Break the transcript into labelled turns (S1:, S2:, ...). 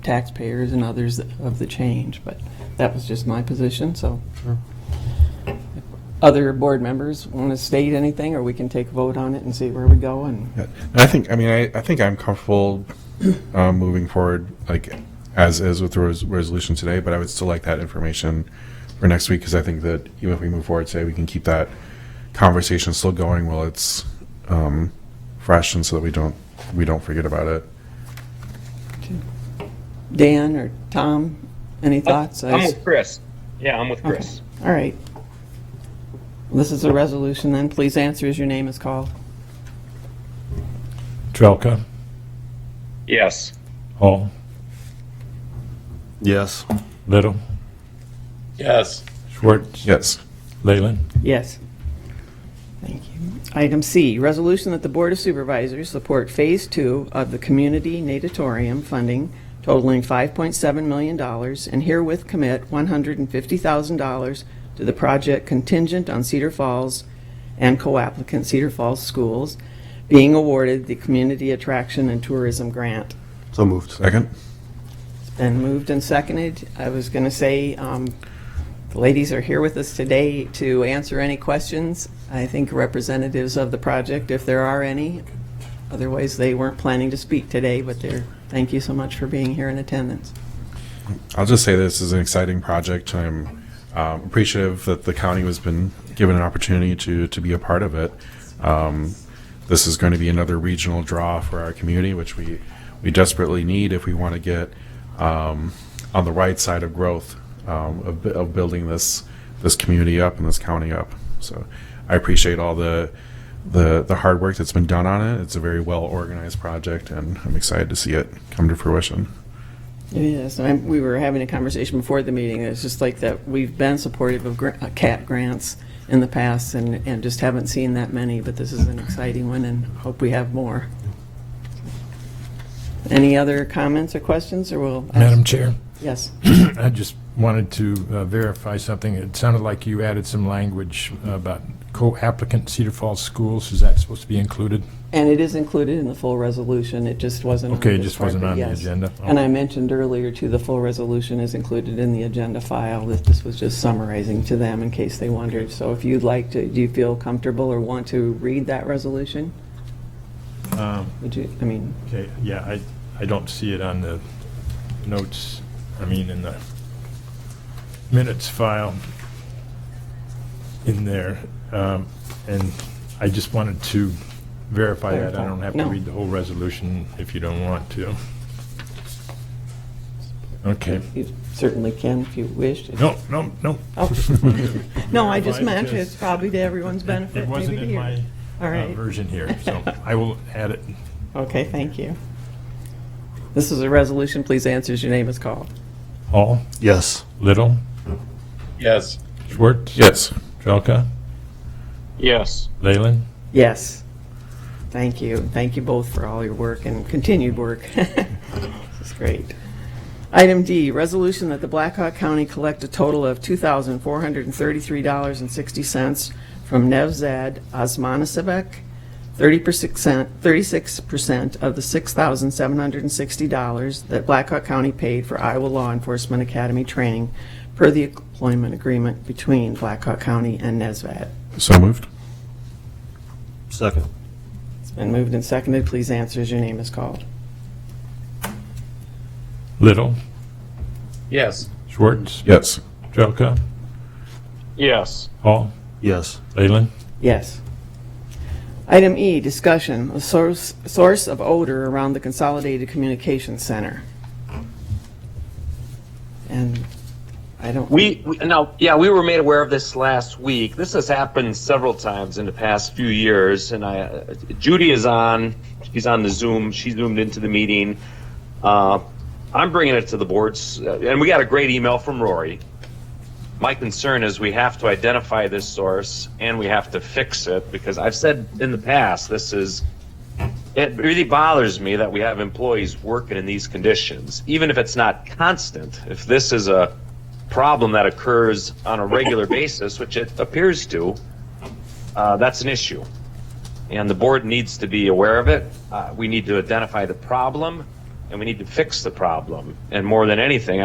S1: taxpayers and others of the change, but that was just my position, so.
S2: Sure.
S1: If Other board members want to state anything, or we can take a vote on it and see where we go, and
S2: Yeah. I think, I mean, I, I think I'm comfortable uh, moving forward, like, as is with the res- resolution today, but I would still like that information for next week, because I think that even if we move forward today, we can keep that conversation still going while it's um, fresh, and so that we don't, we don't forget about it.
S1: Dan or Tom, any thoughts? I
S3: I'm
S1: s-
S3: with Chris. Yeah, I'm with Chris.
S1: All right. This is a resolution then, please answer as your name is called.
S4: Trelka,
S3: Yes.
S4: Hall,
S5: Yes.
S4: Little,
S6: Yes.
S4: Schwartz,
S2: Yes.
S4: Leyland.
S1: Yes. Thank you. Item C, resolution that the Board of Supervisors support Phase Two of the Community Natatorium funding totaling $5.7 million and herewith commit $150,000 to the project contingent on Cedar Falls and co-applicant Cedar Falls Schools being awarded the Community Attraction and Tourism Grant.
S5: So moved.
S2: Second?
S1: Been moved and seconded. I was going to say, um, the ladies are here with us today to answer any questions. I think representatives of the project, if there are any. Otherwise, they weren't planning to speak today, but they're, thank you so much for being here in attendance.
S2: I'll just say this is an exciting project. I'm um, appreciative that the county has been given an opportunity to to be a part of it. Um, this is going to be another regional draw for our community, which we we desperately need if we want to get um, on the right side of growth um, of, bu- of building this this community up and this county up. So I appreciate all the the the hard work that's been done on it. It's a very well organized project, and I'm excited to see it come to fruition.
S1: It is. I'm- We were having a conversation before the meeting. It's just like that we've been supportive of gra- uh, CAT grants in the past and, and just haven't seen that many, but this is an exciting one and hope we have more. Any other comments or questions, or we'll?
S4: Madam Chair,
S1: Yes.
S4: I just wanted to uh, verify something. It sounded like you added some language about co-applicant Cedar Falls Schools. Is that supposed to be included?
S1: And it is included in the full resolution. It just wasn't. on
S4: Okay, it
S1: this
S4: just wasn't
S1: part,
S4: on the
S1: yes.
S4: agenda.
S1: And I mentioned earlier too, the full resolution is included in the agenda file, that this was just summarizing to them in case they wondered. So if you'd like to, do you feel comfortable or want to read that resolution?
S4: Um,
S1: Would you, I mean,
S4: Okay, yeah, I, I don't see it on the notes, I mean, in the minutes file in there. Um, And I just wanted to verify that. I don't have to
S1: No.
S4: read the whole resolution if you don't want to. Okay.
S1: you certainly can if you wish.
S4: No, no, no.
S1: Oh. No, I just
S4: Verify
S1: meant
S4: because
S1: it's probably to everyone's benefit,
S4: It
S1: maybe
S4: wasn't
S1: to
S4: in my
S1: hear. All
S4: uh,
S1: right.
S4: version here, so I will add it.
S1: Okay, thank you. This is a resolution. Please answer as your name is called.
S4: Hall,
S5: Yes.
S4: Little,
S6: Yes.
S4: Schwartz,
S2: Yes.
S4: Jelka,
S3: Yes.
S4: Leyland.
S1: Yes. Thank you. Thank you both for all your work and continued work. This is great. Item D, resolution that the Blackhawk County collect a total of $2,433.60 from Nevzad Osmanisabek, 30%, 36% of the $6,760 that Blackhawk County paid for Iowa Law Enforcement Academy training per the employment agreement between Blackhawk County and Nevzad.
S2: So moved.
S5: Second.
S1: It's been moved and seconded. Please answer as your name is called.
S4: Little,
S6: Yes.
S4: Schwartz,
S2: Yes.
S4: Jelka,
S3: Yes.
S4: Hall,
S5: Yes.
S4: Leyland.
S1: Yes. Item E, discussion, a source, source of odor around the Consolidated Communications Center. And I don't.
S3: We, we no, yeah, we were made aware of this last week. This has happened several times in the past few years, and I, uh, Judy is on. She's on the Zoom. She zoomed into the meeting. Uh, I'm bringing it to the boards, uh, and we got a great email from Rory. My concern is we have to identify this source and we have to fix it because I've said in the past this is it really bothers me that we have employees working in these conditions, even if it's not constant. If this is a problem that occurs on a regular basis, which it appears to, uh, that's an issue. And the board needs to be aware of it. Uh, we need to identify the problem and we need to fix the problem. And more than anything,